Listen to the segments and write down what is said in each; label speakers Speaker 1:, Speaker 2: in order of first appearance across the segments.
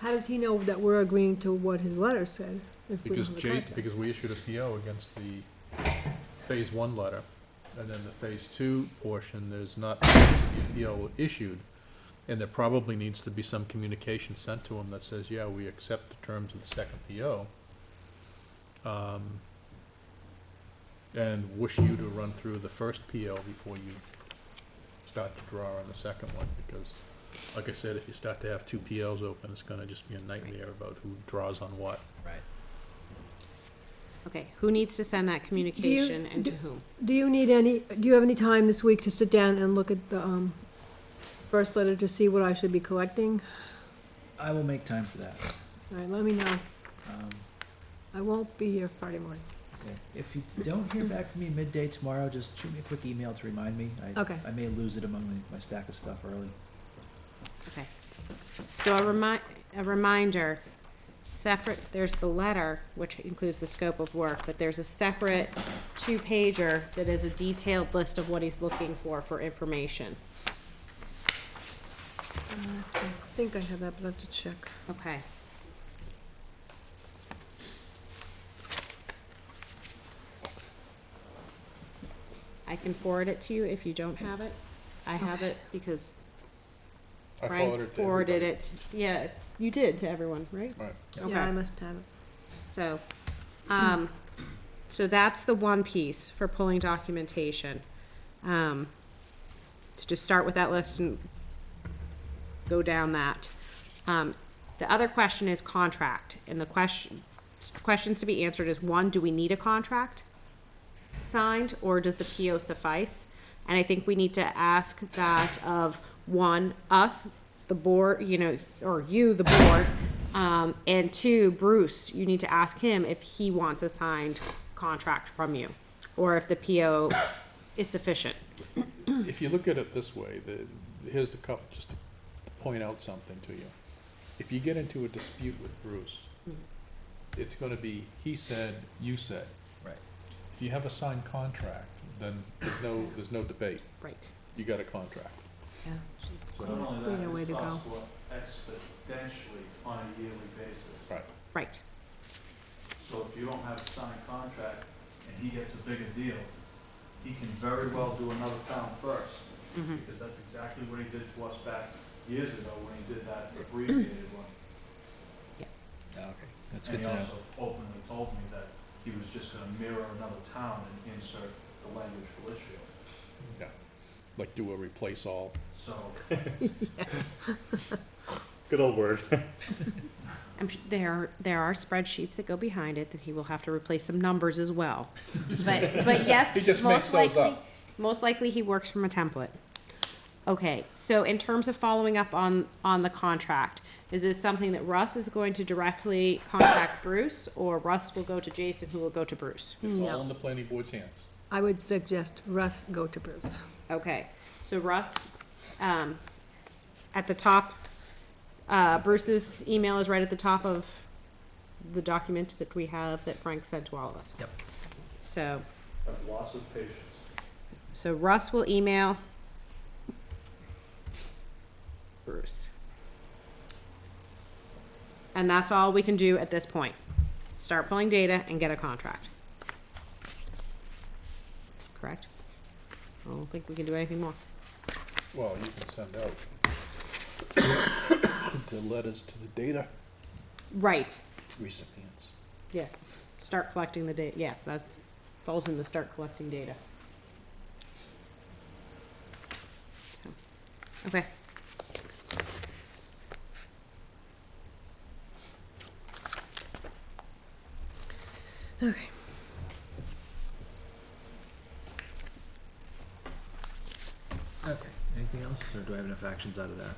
Speaker 1: How does he know that we're agreeing to what his letter said? if we don't
Speaker 2: Because
Speaker 1: have a
Speaker 2: J,
Speaker 1: contract?
Speaker 2: because we issued a PO against the phase one letter, and then the phase two portion, there's not a PO issued. And there probably needs to be some communication sent to him that says, yeah, we accept the terms of the second PO. um, And wish you to run through the first PO before you start to draw on the second one, because like I said, if you start to have two POs open, it's gonna just be a nightmare about who draws on what.
Speaker 3: Right.
Speaker 4: Okay, who needs to send that communication and to whom?
Speaker 1: Do you need any, do you have any time this week to sit down and look at the, um, first letter to see what I should be collecting?
Speaker 3: I will make time for that.
Speaker 1: All right, let me know.
Speaker 3: Um,
Speaker 1: I won't be here Friday morning.
Speaker 3: yeah. If you don't hear back from me midday tomorrow, just shoot me a quick email to remind me. I,
Speaker 1: Okay.
Speaker 3: I may lose it among the, my stack of stuff early.
Speaker 4: Okay. So a remind, a reminder, separate, there's the letter, which includes the scope of work, but there's a separate two-pager that is a detailed list of what he's looking for, for information.
Speaker 1: Uh, I think I have that, but I have to check.
Speaker 4: Okay. I can forward it to you if you don't have it. I have it because
Speaker 2: I
Speaker 4: Frank
Speaker 2: to
Speaker 4: forwarded
Speaker 2: everybody.
Speaker 4: it. Yeah, you did to everyone, right?
Speaker 2: Right.
Speaker 1: Yeah, I
Speaker 4: Okay,
Speaker 1: must have it.
Speaker 4: so, um, so that's the one piece for pulling documentation. Um, to just start with that list and go down that. Um, the other question is contract, and the question, questions to be answered is, one, do we need a contract? signed, or does the PO suffice? And I think we need to ask that of, one, us, the board, you know, or you, the board, um, and two, Bruce, you need to ask him if he wants a signed contract from you, or if the PO is sufficient.
Speaker 2: If you look at it this way, the, here's the couple, just to point out something to you. If you get into a dispute with Bruce,
Speaker 4: Mm.
Speaker 2: it's gonna be, he said, you said.
Speaker 3: Right.
Speaker 2: If you have a signed contract, then there's no, there's no debate.
Speaker 4: Right.
Speaker 2: You got a contract.
Speaker 1: Yeah.
Speaker 2: So,
Speaker 5: Not only
Speaker 1: Cleaner
Speaker 5: that,
Speaker 1: way
Speaker 5: it
Speaker 1: to go.
Speaker 5: costs more exponentially on a yearly basis.
Speaker 2: right.
Speaker 4: Right.
Speaker 5: So if you don't have a signed contract and he gets a bigger deal, he can very well do another town first.
Speaker 4: Mhm.
Speaker 5: Because that's exactly what he did to us back years ago when he did that abbreviated one.
Speaker 3: Oh, okay. That's
Speaker 5: And
Speaker 3: good
Speaker 5: he
Speaker 3: to know.
Speaker 5: also openly told me that he was just gonna mirror another town and insert the language for Litchfield.
Speaker 2: Yeah. Like do a replace all.
Speaker 5: So
Speaker 2: Good old word.
Speaker 4: I'm, su- there, there are spreadsheets that go behind it that he will have to replace some numbers as well. But, but yes,
Speaker 2: He just makes
Speaker 4: most
Speaker 2: those
Speaker 4: likely,
Speaker 2: up.
Speaker 4: most likely he works from a template. Okay, so in terms of following up on, on the contract, is this something that Russ is going to directly contact Bruce? Or Russ will go to Jason, who will go to Bruce?
Speaker 2: It's
Speaker 1: No.
Speaker 2: all in the planning board's hands.
Speaker 1: I would suggest Russ go to Bruce.
Speaker 4: Okay, so Russ, um, at the top, uh, Bruce's email is right at the top of the document that we have that Frank sent to all of us.
Speaker 3: Yep.
Speaker 4: So,
Speaker 5: have lots of patience.
Speaker 4: so Russ will email Bruce. And that's all we can do at this point. Start pulling data and get a contract. Correct? I don't think we can do anything more.
Speaker 2: Well, you can send out the letters to the data
Speaker 4: Right.
Speaker 2: recipients.
Speaker 4: Yes, start collecting the data, yes, that falls in the start collecting data. So, Okay.
Speaker 1: Okay.
Speaker 3: Okay. Anything else, or do I have enough actions out of that?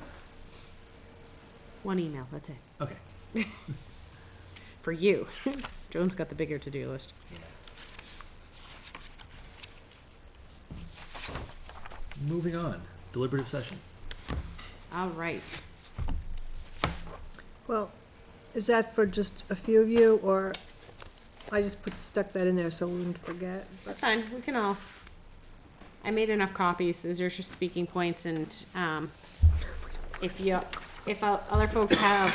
Speaker 4: One email, that's it,
Speaker 3: Okay.
Speaker 4: for you. Joan's got the bigger to-do list.
Speaker 3: Moving on. Deliberative session.
Speaker 4: All right,
Speaker 1: Well, is that for just a few of you, or I just put, stuck that in there so we wouldn't forget?
Speaker 4: that's fine, we can all, I made enough copies, those are just speaking points, and, um, if you, if uh, other folks have